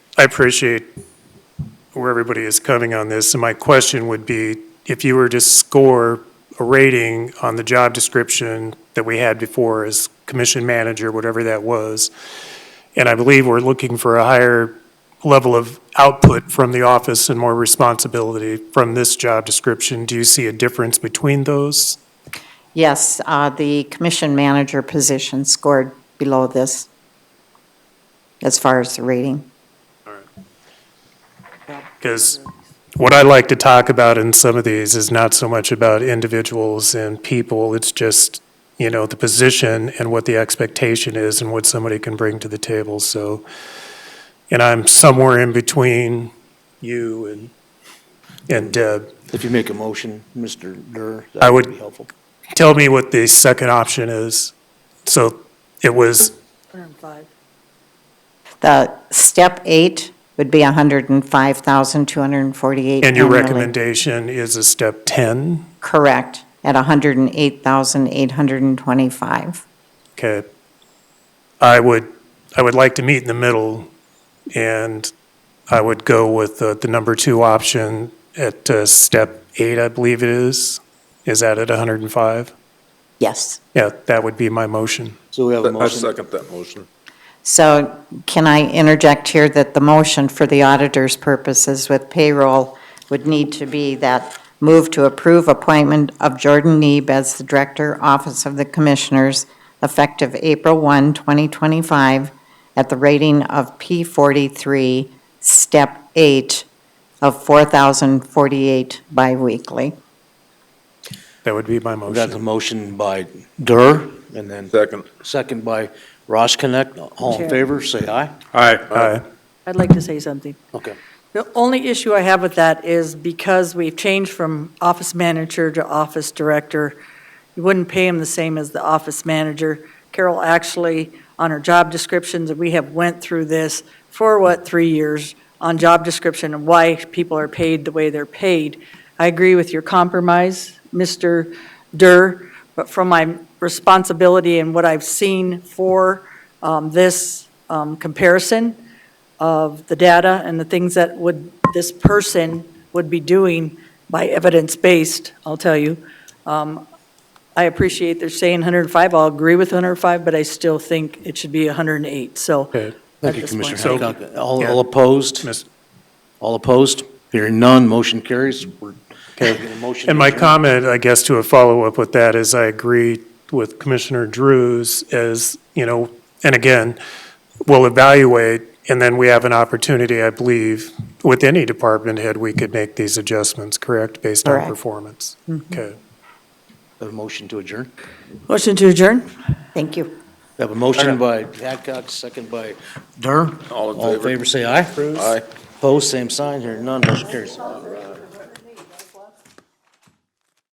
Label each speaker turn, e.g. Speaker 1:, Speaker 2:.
Speaker 1: I appreciate where everybody is coming on this, and my question would be, if you were to score a rating on the job description that we had before as commission manager, whatever that was, and I believe we're looking for a higher level of output from the office and more responsibility from this job description, do you see a difference between those?
Speaker 2: Yes, uh, the commission manager position scored below this as far as the rating.
Speaker 1: Because what I like to talk about in some of these is not so much about individuals and people, it's just, you know, the position and what the expectation is and what somebody can bring to the table, so. And I'm somewhere in between you and, and uh, Deb.
Speaker 3: If you make a motion, Mr. Durr,
Speaker 1: I
Speaker 3: that
Speaker 1: would-
Speaker 3: would be helpful.
Speaker 1: Tell me what the second option is. So it was,
Speaker 4: 105.
Speaker 2: The step eight would be 105,248 annually.
Speaker 1: and your recommendation is a step 10?
Speaker 2: Correct, at 108,825.
Speaker 1: Okay. I would, I would like to meet in the middle, and I would go with the, the number two option at uh, step eight, I believe it is. Is that at 105?
Speaker 2: Yes.
Speaker 1: Yeah, that would be my motion.
Speaker 3: So we have a
Speaker 5: I
Speaker 3: motion.
Speaker 5: second that motion.
Speaker 2: So can I interject here that the motion for the auditor's purposes with payroll would need to be that move to approve appointment of Jordan Neeb as the Director, Office of the Commissioners, effective April 1, 2025, at the rating of P43, Step 8, of 4,048 biweekly.
Speaker 1: That would be my
Speaker 3: We got the
Speaker 1: motion.
Speaker 3: motion by Durr, and then
Speaker 5: Second.
Speaker 3: second by Ross Connect. All in
Speaker 4: Chair.
Speaker 3: favor, say aye.
Speaker 5: Aye.
Speaker 1: Aye.
Speaker 4: I'd like to say something.
Speaker 3: Okay.
Speaker 4: The only issue I have with that is because we've changed from office manager to office director, you wouldn't pay him the same as the office manager. Carol actually, on her job descriptions, and we have went through this for what, three years, on job description and why people are paid the way they're paid. I agree with your compromise, Mr. Durr, but from my responsibility and what I've seen for um, this um, comparison, of the data and the things that would, this person would be doing by evidence-based, I'll tell you. Um, I appreciate they're saying 105, I'll agree with 105, but I still think it should be 108, so.
Speaker 1: Okay.
Speaker 4: at
Speaker 3: Thank you,
Speaker 4: this
Speaker 3: Commissioner
Speaker 4: point-
Speaker 3: Hancock. All
Speaker 1: Yeah.
Speaker 3: all opposed?
Speaker 1: Miss-
Speaker 3: All opposed? Hearing none, motion carries. We're- the motion
Speaker 1: And my
Speaker 3: adjourned.
Speaker 1: comment, I guess, to a follow-up with that is I agree with Commissioner Drews as, you know, and again, we'll evaluate, and then we have an opportunity, I believe, with any department head, we could make these adjustments, correct, based on
Speaker 2: Correct.
Speaker 1: performance? Okay.
Speaker 3: Have a motion to adjourn.
Speaker 4: Motion to adjourn?
Speaker 2: Thank you.
Speaker 3: We have a motion by Hancock, second by Durr.
Speaker 5: All in favor.
Speaker 3: say aye.
Speaker 5: Aye.
Speaker 3: Opposed, same sign. Hearing none, motion carries.